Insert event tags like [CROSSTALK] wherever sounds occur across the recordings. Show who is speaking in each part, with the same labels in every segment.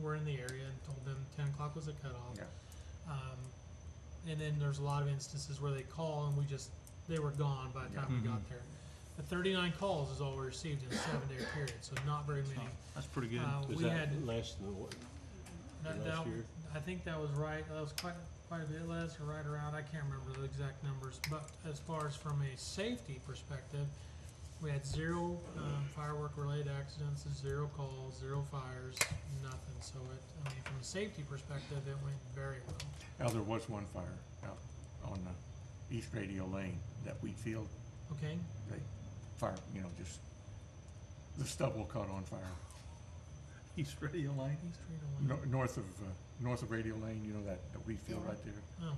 Speaker 1: were in the area and told them ten o'clock was a cutoff.
Speaker 2: Yeah.
Speaker 1: Um, and then there's a lot of instances where they call and we just, they were gone by the
Speaker 2: Yeah.
Speaker 1: time we
Speaker 3: Mhm.
Speaker 1: got there. The thirty-nine calls is all we received in a seven-day period, so not very many.
Speaker 3: That's pretty good.
Speaker 1: Uh,
Speaker 4: Was
Speaker 1: we
Speaker 4: that
Speaker 1: had,
Speaker 4: less than what?
Speaker 1: that,
Speaker 4: last
Speaker 1: that,
Speaker 4: year?
Speaker 1: I think that was right, that was quite, quite a bit less, or right around, I can't remember the exact numbers. But as far as from a safety perspective, we had zero, um, firework-related accidents, zero calls, zero fires, nothing. So it, I mean, from a safety perspective, it went very well.
Speaker 2: Now, there was one fire out on the East Radio Lane, that wheat field,
Speaker 1: Okay,
Speaker 2: they fire, you know, just, the stubble caught on fire.
Speaker 3: East Radio Lane.
Speaker 1: East Tree to
Speaker 2: No, north of, uh, north of Radio Lane, you know, that, that wheat field right there.
Speaker 1: Oh,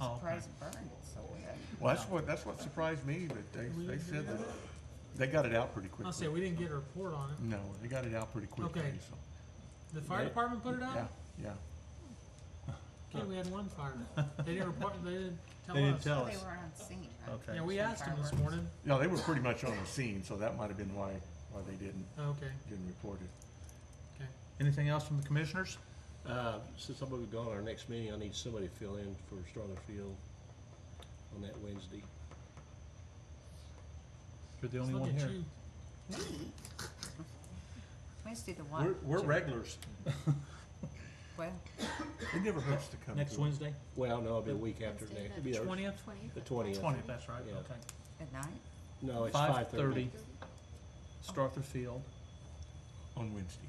Speaker 3: Oh, okay.
Speaker 5: Surprised it burned so bad.
Speaker 2: Well, that's what, that's what surprised me, but they,
Speaker 1: We
Speaker 2: they
Speaker 1: didn't
Speaker 2: said
Speaker 1: do
Speaker 2: that, they got it out pretty
Speaker 1: I'll say,
Speaker 2: quickly.
Speaker 1: we didn't get a report on it.
Speaker 2: No, they got it out pretty quickly,
Speaker 1: Okay.
Speaker 2: so.
Speaker 1: The fire
Speaker 2: Yeah.
Speaker 1: department put it
Speaker 2: Yeah,
Speaker 1: out?
Speaker 2: yeah.
Speaker 1: Okay, we had one
Speaker 3: [LAUGHS]
Speaker 1: fire. They didn't report, they didn't tell us.
Speaker 3: They didn't tell
Speaker 5: They
Speaker 3: us.
Speaker 5: were on scene, right?
Speaker 3: Okay.
Speaker 1: Yeah, we asked them this morning.
Speaker 2: No, they were pretty much on the scene, so that might have been why, why they didn't,
Speaker 1: Okay,
Speaker 2: didn't report it.
Speaker 1: okay.
Speaker 3: Anything else from the commissioners?
Speaker 4: Uh, since I'm gonna be gone our next meeting, I need somebody to fill in for Starler Field on that Wednesday.
Speaker 3: You're the only
Speaker 1: Let's look
Speaker 3: one
Speaker 1: at
Speaker 3: here.
Speaker 1: you.
Speaker 5: Wednesday the
Speaker 4: We're,
Speaker 5: one,
Speaker 4: we're regulars.
Speaker 5: well,
Speaker 2: It never hurts to come to.
Speaker 3: Next Wednesday?
Speaker 4: Well, no, it'll be a week after
Speaker 6: Wednesday,
Speaker 4: next.
Speaker 6: the
Speaker 4: It'll be the-
Speaker 1: Twentieth?
Speaker 4: The
Speaker 6: Twentieth.
Speaker 4: twentieth.
Speaker 3: Twentieth, that's right,
Speaker 4: Yeah.
Speaker 3: okay.
Speaker 5: at night,
Speaker 4: No, it's
Speaker 3: Five
Speaker 4: five thirty.
Speaker 3: thirty. Starther Field.
Speaker 2: On Wednesday.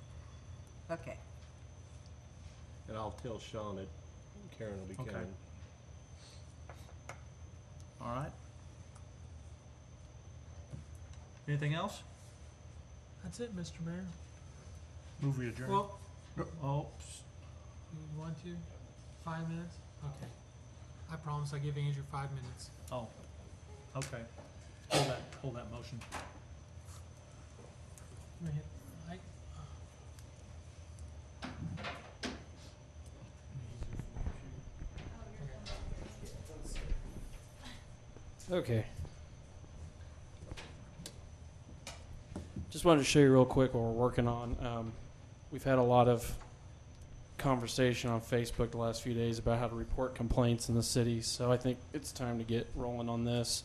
Speaker 5: okay.
Speaker 4: And I'll tell Sean that Karen will be
Speaker 3: Okay.
Speaker 4: coming.
Speaker 3: All right. Anything else?
Speaker 1: That's it, Mr. Mayor.
Speaker 2: Move we adjourn.
Speaker 1: Well,
Speaker 3: Oh, psst.
Speaker 1: you want to? Five minutes? Okay. I promise I give Andrew five minutes.
Speaker 3: oh, okay. Hold that, hold that motion.
Speaker 1: Let me hit- I- uh,
Speaker 6: Okay. Just wanted to show you real quick what we're working on. Um, we've had a lot of conversation on Facebook the last few days about how to report complaints in the city, so I think it's time to get rolling on this.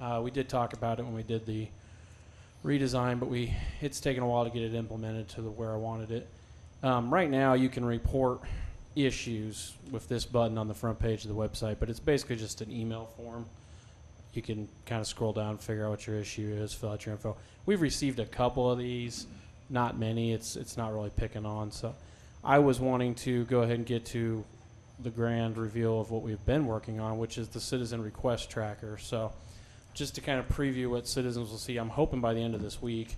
Speaker 6: Uh, we did talk about it when we did the redesign, but we it's taken a while to get it implemented to the where I wanted it. Um, right now, you can report issues with this button on the front page of the website, but it's basically just an email form you can kind of scroll down, figure out what your issue is, fill out your info. We've received a couple of these, not many. It's it's not really picking on. So, I was wanting to go ahead and get to the grand reveal of what we've been working on, which is the citizen request tracker. So, just to kind of preview what citizens will see, I'm hoping by the end of this week,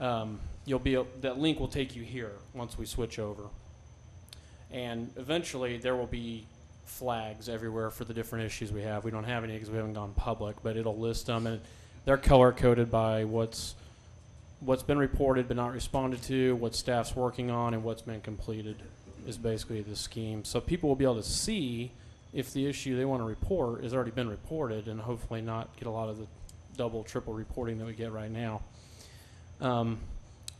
Speaker 6: um, you'll be a- that link will take you here once we switch over, and eventually there will be flags everywhere for the different issues we have. We don't have any because we haven't gone public, but it'll list them and they're color coded by what's what's been reported but not responded to, what staff's working on, and what's been completed is basically the scheme. So people will be able to see if the issue they want to report has already been reported and hopefully not get a lot of the double, triple reporting that we get right now. Um,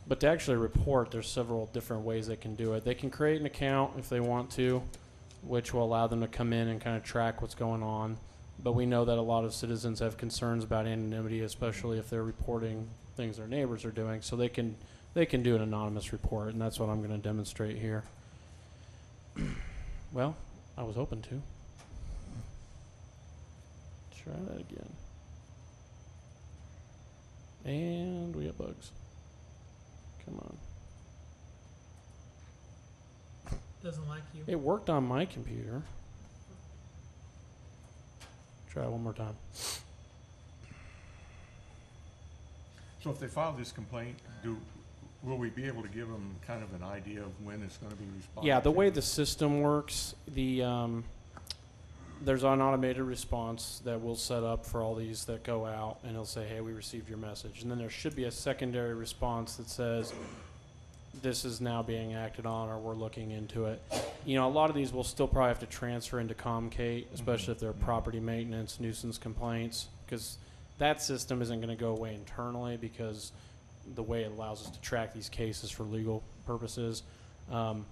Speaker 6: but to actually report, there's several different ways they can do it. They can create an account if they want to which will allow them to come in and kind of track what's going on. But we know that a lot of citizens have concerns about anonymity, especially if they're reporting things their neighbors are doing. So they can they can do an anonymous report, and that's what I'm going to demonstrate here. [CLEARS THROAT] well, I was hoping to. Try that again. And we have bugs. Come on.
Speaker 1: Doesn't like you.
Speaker 6: It worked on my computer. Try it one more time.
Speaker 2: So if they file this complaint, do, will we be able to give them kind of an idea of when it's gonna be responded
Speaker 6: Yeah, the way
Speaker 2: to?
Speaker 6: the system works, the um, there's an automated response that we'll set up for all these that go out, and it'll say, "Hey, we received your message," and then there should be a secondary response that says, "This is now being acted on, or we're looking into it." You know, a lot of these will still probably have to transfer into Comcate, especially if they're
Speaker 2: Mhm.
Speaker 6: property maintenance nuisance complaints, because that system isn't going to go away internally because the way it allows us to track these cases for legal purposes. Um,